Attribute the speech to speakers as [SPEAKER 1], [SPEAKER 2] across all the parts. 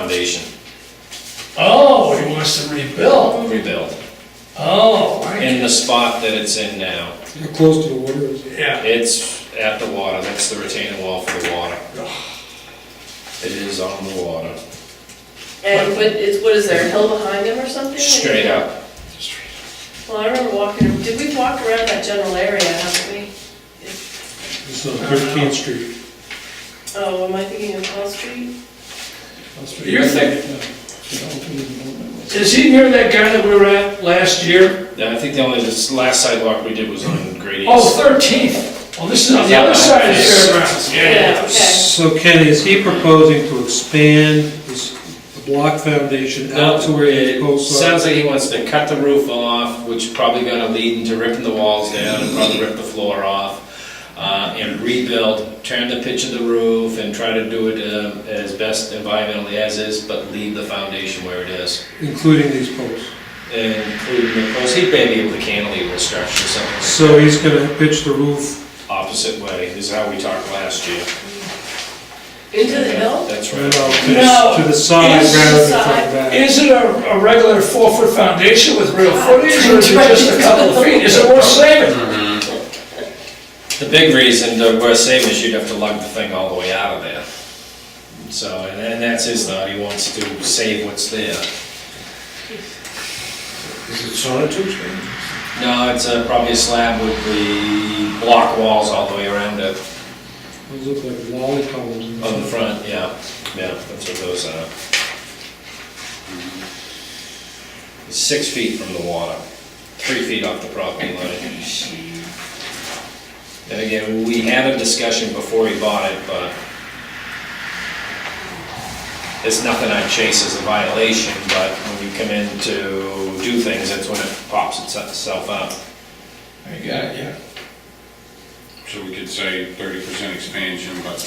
[SPEAKER 1] foundation
[SPEAKER 2] Oh, he wants to rebuild.
[SPEAKER 1] rebuild
[SPEAKER 2] Oh, I-
[SPEAKER 1] in the spot that it's in now.
[SPEAKER 3] You're close to the water, is it?
[SPEAKER 2] yeah.
[SPEAKER 1] It's at the water, that's the retaining wall for the water. It is on the water,
[SPEAKER 4] And what, it's, what is there, a hill behind them or something?
[SPEAKER 1] straight up.
[SPEAKER 4] Well, I remember walking, did we walk around that general area, haven't we?
[SPEAKER 3] It's on Thirteenth Street.
[SPEAKER 4] Oh, am I thinking of Hall Street?
[SPEAKER 2] You're thinking, is he near that guy that we were at last year?
[SPEAKER 1] Now, I think the only, this last sidewalk we did was on Grady.
[SPEAKER 2] Oh, Thirteenth. Well, this is on the other side of the fairgrounds.
[SPEAKER 4] Yeah, okay.
[SPEAKER 3] So Ken, is he proposing to expand this block foundation out to where uh, the
[SPEAKER 1] It
[SPEAKER 3] posts are?
[SPEAKER 1] sounds like he wants to cut the roof off, which probably gonna lead into ripping the walls down and probably rip the floor off. Uh, and rebuild, turn the pitch of the roof and try to do it uh, as best environmentally as is, but leave the foundation where it is.
[SPEAKER 3] Including these posts.
[SPEAKER 1] And including, of course, he'd maybe able to cantilever structure something like
[SPEAKER 3] So he's gonna pitch the roof
[SPEAKER 1] opposite way, is how we talked last year.
[SPEAKER 4] Into the hill?
[SPEAKER 1] That's
[SPEAKER 3] right
[SPEAKER 1] right.
[SPEAKER 3] out to
[SPEAKER 2] No,
[SPEAKER 3] the- to the side
[SPEAKER 2] it's
[SPEAKER 3] rather than from
[SPEAKER 4] the
[SPEAKER 3] the
[SPEAKER 4] side.
[SPEAKER 3] back.
[SPEAKER 2] Is it a, a regular four-foot foundation with real footage, or is it just a couple of feet? Is it worth saving?
[SPEAKER 1] The big reason to we're saving is you'd have to lug the thing all the way out of there. So, and and that's his thought, he wants to save what's there.
[SPEAKER 5] Is it sonotubes? man?
[SPEAKER 1] No, it's uh, probably a slab with the block walls all the way around it,
[SPEAKER 3] Those look like lolly columns. in the
[SPEAKER 1] on the
[SPEAKER 3] front.
[SPEAKER 1] front, yeah, yeah, that's what uh, those are. It's Six feet from the water, three feet off the property line. And again, we had a discussion before he bought it, but it's nothing I chase as a violation, but when you come in to do things, that's when it pops itself up.
[SPEAKER 5] I got it, yeah.
[SPEAKER 6] So we could say thirty percent expansion, but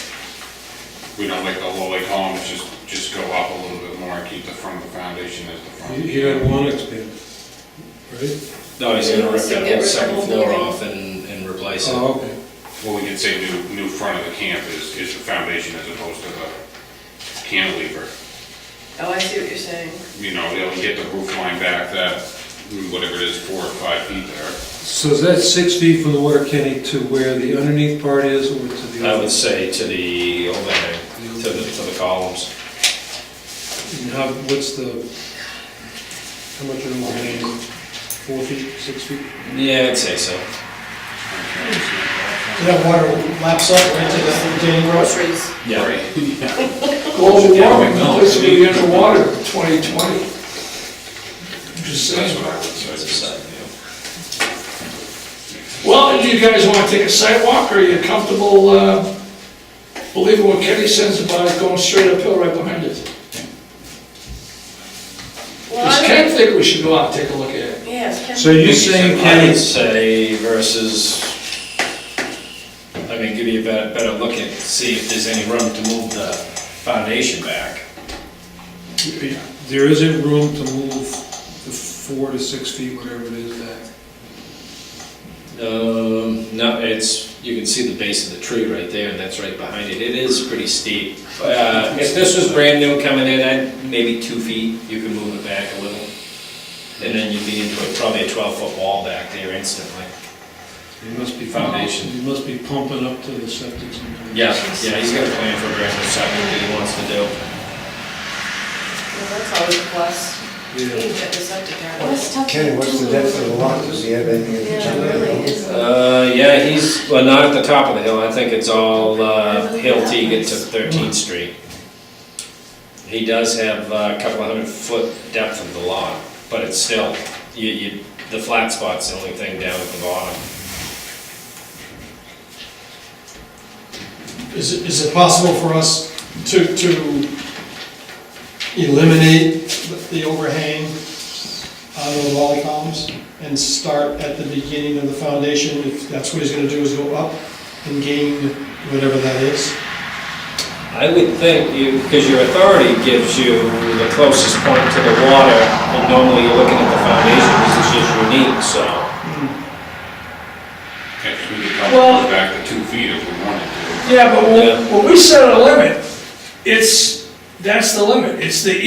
[SPEAKER 6] we don't like the whole lake columns, just, just go up a little bit more and keep the front of the foundation as the front.
[SPEAKER 3] He he doesn't wanna expand, right?
[SPEAKER 1] No, he's gonna rip
[SPEAKER 4] Wants to
[SPEAKER 1] that
[SPEAKER 4] get
[SPEAKER 1] whole
[SPEAKER 4] rid of the
[SPEAKER 1] second
[SPEAKER 4] whole
[SPEAKER 1] floor
[SPEAKER 4] building.
[SPEAKER 1] off and, and replace it.
[SPEAKER 3] Oh, okay.
[SPEAKER 6] Well, we could say new, new front of the camp is, is the foundation as opposed to the cantilever.
[SPEAKER 4] Oh, I see what you're saying.
[SPEAKER 6] You know, they'll get the roof line back that, whatever it is, four or five feet there.
[SPEAKER 3] So is that six feet from the water, Kenny, to where the underneath part is or to the?
[SPEAKER 1] I
[SPEAKER 3] other?
[SPEAKER 1] would say to the overhang, to the, to the columns.
[SPEAKER 3] And how, what's the, how much are the lanes? Four feet, six feet?
[SPEAKER 1] Yeah, I'd say so.
[SPEAKER 7] That water laps up right to the retaining wall.
[SPEAKER 4] Groceries.
[SPEAKER 1] Yeah.
[SPEAKER 2] Global warming, this will be underwater in 2020. Just
[SPEAKER 6] That's
[SPEAKER 2] saying.
[SPEAKER 6] what I would say.
[SPEAKER 1] It's a side view.
[SPEAKER 2] Well, do you guys want to take a sidewalk, or are you comfortable uh, believing what Kenny says about going straight uphill right behind it?
[SPEAKER 4] Well,
[SPEAKER 2] Does
[SPEAKER 4] I
[SPEAKER 2] Ken
[SPEAKER 4] don't-
[SPEAKER 2] think we should go out and take a look at it?
[SPEAKER 4] Yes, Ken.
[SPEAKER 3] So you're saying,
[SPEAKER 1] I would
[SPEAKER 3] Kenny,
[SPEAKER 1] say versus, I mean, give you a better, better look at, see if there's any room to move the foundation back.
[SPEAKER 3] there isn't room to move the four to six feet, whatever it is back?
[SPEAKER 1] Um, no, it's, you can see the base of the tree right there, and that's right behind it. It is pretty steep. Uh, if this was brand new coming in, I'd, maybe two feet, you could move it back a little. And then you'd be into a- probably a twelve-foot wall back there instantly.
[SPEAKER 3] It must be
[SPEAKER 1] Foundation.
[SPEAKER 3] You must be pumping up to the septic somewhere.
[SPEAKER 1] Yeah, yeah, he's got a plan for Grand Rapids, something that he wants to do.
[SPEAKER 4] Well, that's always a plus. You
[SPEAKER 3] Yeah.
[SPEAKER 4] can get this up to
[SPEAKER 5] Kenny, what's the depth of the lot? Does he have anything in
[SPEAKER 4] Yeah,
[SPEAKER 5] particular?
[SPEAKER 4] really, is
[SPEAKER 1] Uh, yeah, he's, well, not at the top of the hill, I think it's all, uh, hill till you get to Thirteenth Street. He does have uh, a couple of hundred foot depth of the lot, but it's still, you, you, the flat spot's the only thing down at the bottom.
[SPEAKER 7] Is it, is it possible for us to, to eliminate the overhang on the wall columns and start at the beginning of the foundation, if that's what he's gonna do, is go up and gain whatever that is?
[SPEAKER 1] I would think you, because your authority gives you the closest point to the water, and normally you're looking at the foundation, this is just unique, so.
[SPEAKER 6] Actually, we could come
[SPEAKER 2] Well-
[SPEAKER 6] back to two feet if we wanted to.
[SPEAKER 2] Yeah, but
[SPEAKER 1] Yeah.
[SPEAKER 2] when, when we set a limit, it's that's the limit, it's the